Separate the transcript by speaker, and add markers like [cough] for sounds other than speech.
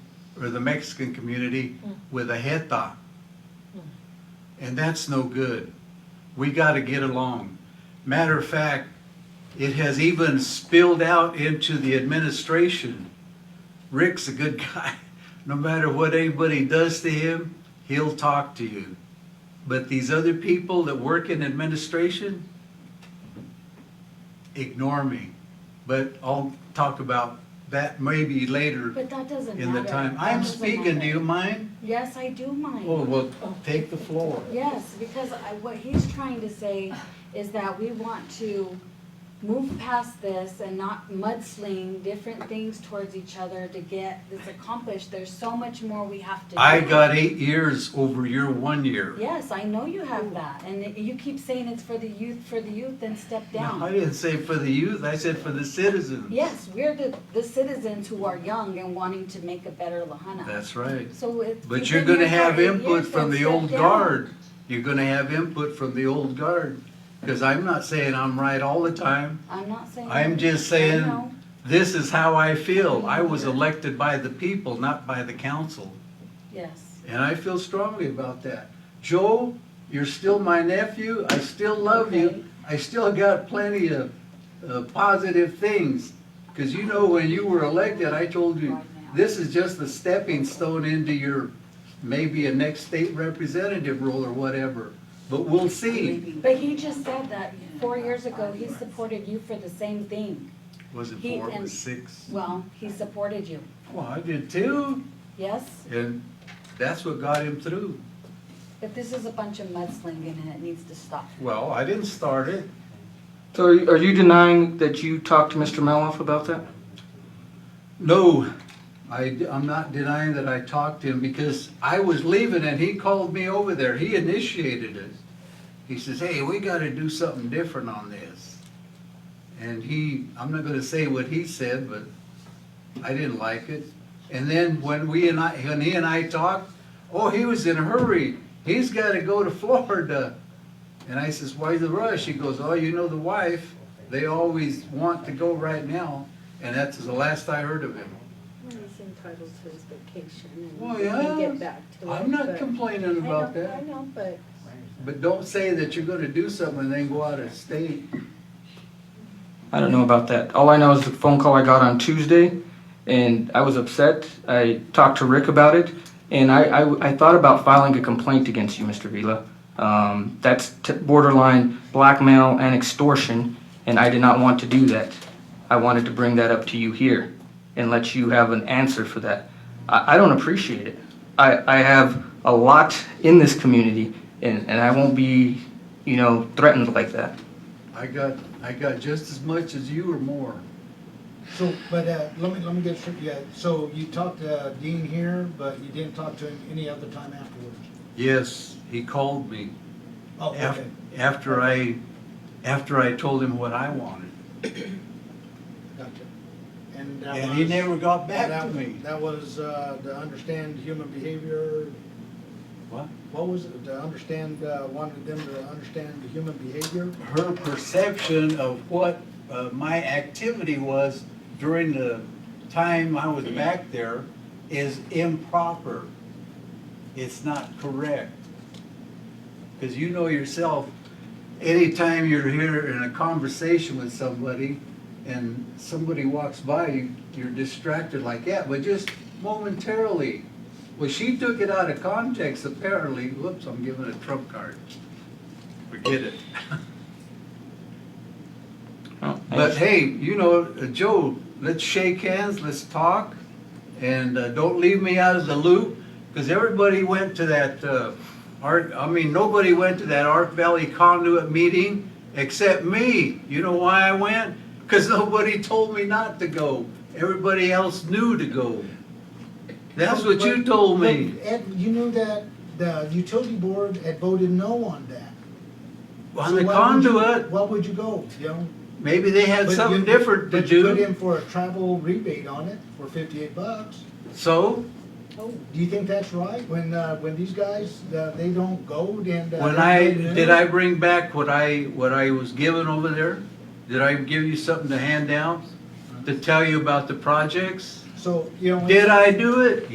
Speaker 1: or the Mexican community with a jeta. And that's no good. We got to get along. Matter of fact, it has even spilled out into the administration. Rick's a good [laughs] guy. No matter what anybody does to him, he'll talk to you. But these other people that work in administration, ignore me. But I'll talk about that maybe later
Speaker 2: But that doesn't matter.
Speaker 1: in the time.
Speaker 2: That
Speaker 1: I'm
Speaker 2: doesn't
Speaker 1: speaking, do
Speaker 2: matter.
Speaker 1: you Oh. mind?
Speaker 2: Yes, I do mind.
Speaker 1: Well, well, take the floor.
Speaker 2: Yes, because I, what he's trying to say is that we want to move past this and not mudsling different things towards each other to get this accomplished. There's so much more we have to do.
Speaker 1: I got eight years over your one year.
Speaker 2: Yes, I know you have that, and you keep saying it's for the youth, for the youth, then step
Speaker 1: No, I
Speaker 2: down.
Speaker 1: didn't say for the youth, I said for the citizens.
Speaker 2: Yes, we're the, the citizens who are young and wanting to make a better Lahana.
Speaker 1: That's right.
Speaker 2: So it's.
Speaker 1: But
Speaker 2: you've
Speaker 1: you're
Speaker 2: been
Speaker 1: gonna
Speaker 2: here for
Speaker 1: have
Speaker 2: eight
Speaker 1: input
Speaker 2: years,
Speaker 1: from
Speaker 2: then
Speaker 1: the
Speaker 2: step
Speaker 1: old
Speaker 2: down.
Speaker 1: guard. You're gonna have input from the old guard. Cause I'm not saying I'm right all the time.
Speaker 2: I'm not saying.
Speaker 1: I'm just
Speaker 2: I
Speaker 1: saying,
Speaker 2: know.
Speaker 1: this is how I feel. I was elected by the people, not by the council.
Speaker 2: Yes.
Speaker 1: And I feel strongly about that. Joe, you're still my nephew. I still love
Speaker 2: Okay.
Speaker 1: you. I still got plenty of uh, positive things. Because you know, when you were elected, I told you, this is just the stepping stone into your maybe a next state representative role or whatever. But we'll see.
Speaker 2: But he just said that four years ago, he supported you for the same thing.
Speaker 1: Was it
Speaker 2: He
Speaker 1: four? It
Speaker 2: and-
Speaker 1: was six?
Speaker 2: Well, he supported you,
Speaker 1: Well, I did too.
Speaker 2: yes?
Speaker 1: And that's what got him through.
Speaker 2: But this is a bunch of mudslinging and it needs to stop.
Speaker 1: Well, I didn't start it.
Speaker 3: So are you- are you denying that you talked to Mr. Meloff about that?
Speaker 1: No, I, am not denying that I talked to him because I was leaving and he called me over there. He initiated it. He says, hey, we gotta do something different on this. And he, I'm not gonna say what he said, but I didn't like it. And then when we and I, when he and I talked, oh, he was in a hurry. He's gotta go to [laughs] Florida. And I says, why the rush? He goes, oh, you know the wife, they always want to go right now. And that's the last I heard of him.
Speaker 4: Well, he's entitled to his vacation and
Speaker 1: Well,
Speaker 4: we can
Speaker 1: yeah.
Speaker 4: get back to it.
Speaker 1: I'm
Speaker 4: but-
Speaker 1: not complaining
Speaker 4: I
Speaker 1: about
Speaker 4: know- I
Speaker 1: that,
Speaker 4: know, but
Speaker 1: but don't say that you're gonna do something and then go out of state.
Speaker 3: I don't know about that. All I know is the phone call I got on Tuesday, and I was upset. I talked to Rick about it, and I, I, I thought about filing a complaint against you, Mr. Vila. Um, that's t- borderline blackmail and extortion, and I did not want to do that. I wanted to bring that up to you here and let you have an answer for that. I, I don't appreciate it. I, I have a lot in this community, and, and I won't be, you know, threatened like that.
Speaker 1: I got, I got just as much as you or more.
Speaker 5: So, but, uh, let me, let me get straight, yeah, so you talked to Dean here, but you didn't talk to him any other time afterwards?
Speaker 1: Yes, he called me
Speaker 5: Oh,
Speaker 1: af-
Speaker 5: okay,
Speaker 1: after I, after I told him what I wanted.
Speaker 5: gotcha. And that was.
Speaker 1: And he never got back
Speaker 5: that-
Speaker 1: to me.
Speaker 5: That was, uh, to understand human behavior,
Speaker 1: What?
Speaker 5: what was it, to understand, uh, wanted them to understand the human behavior?
Speaker 1: Her perception of what, uh, my activity was during the time I was back there is improper. It's not correct. Because you know yourself, anytime you're here in a conversation with somebody and somebody walks by, you- you're distracted like that, but just momentarily. Well, she took it out of context apparently. Whoops, I'm giving a trump card. Forget it. [laughs]
Speaker 3: Oh, I
Speaker 1: But hey, you know, uh, Joe, let's shake hands, let's talk, and uh, don't leave me out of the loop, because everybody went to that, uh, Art, I mean, nobody went to that Art Valley Conduit meeting except me. You know why I went? Because nobody told me not to go. Everybody else knew to go. That's what you
Speaker 5: But-
Speaker 1: told me.
Speaker 5: but Ed, you knew that the utility board had voted no on that.
Speaker 1: On
Speaker 5: So
Speaker 1: the
Speaker 5: why would you-
Speaker 1: conduit,
Speaker 5: Why would you go, you know?
Speaker 1: maybe they had
Speaker 5: But
Speaker 1: something
Speaker 5: you-
Speaker 1: different to
Speaker 5: but you Put
Speaker 1: do,
Speaker 5: in for a travel rebate on it for fifty-eight bucks.
Speaker 1: so.
Speaker 5: Oh, do you think that's right? When, uh, when these guys, uh, they don't go and. uh,
Speaker 1: When
Speaker 5: they
Speaker 1: I,
Speaker 5: don't
Speaker 1: did I bring back what I, what I was given over there? Did I give you something to hand out to tell you about the projects?
Speaker 5: So, you know.
Speaker 1: Did I do it?